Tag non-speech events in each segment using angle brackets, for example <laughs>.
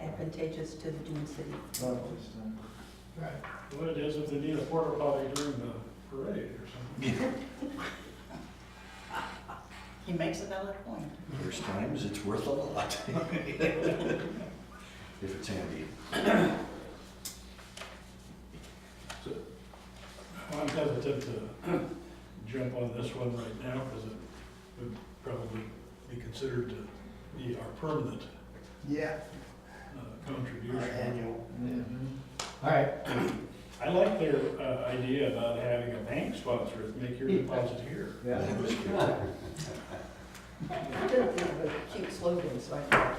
advantageous to the Dune City. Right. What it is, if they need a porta potty during the parade or something. He makes a valid point. There's times it's worth a <laughs> lot. If it's handy. I'm hesitant to jump on this one right now because it would probably be considered to be our permanent Yeah. Mm-hmm. uh, contribution. annual. All right, I like their uh, idea about having a bank sponsor, make your deposit here. yeah. That was good. He did think of a cute slogan, so I thought,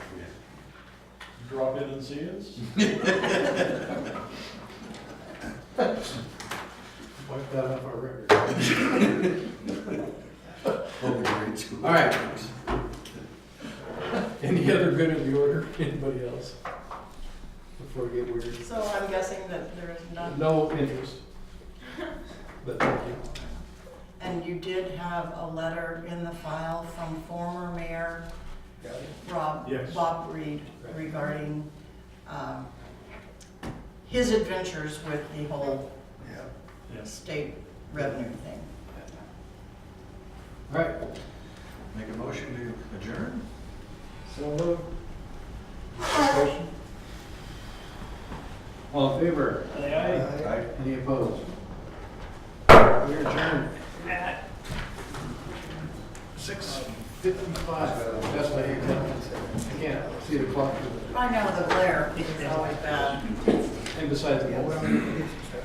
Drop in and see us. Wipe that off our record. Hope you're in school. All right. Any other good of the order, <laughs> anybody else? Before we get weird. So I'm guessing that there is none, No interest. But thank you. and you did have a letter in the file from former mayor Got it. Rob, Yes. Bob Reed regarding, um, his adventures with the whole Yeah. Yes. state revenue thing. All right. Make a motion to adjourn? So moved. Discussion? All in favor? Aye, aye. Any opposed? We're adjourned. Six fifty-five. That's why you can't, you can't see the clock. I know the glare is always bad. And besides, the-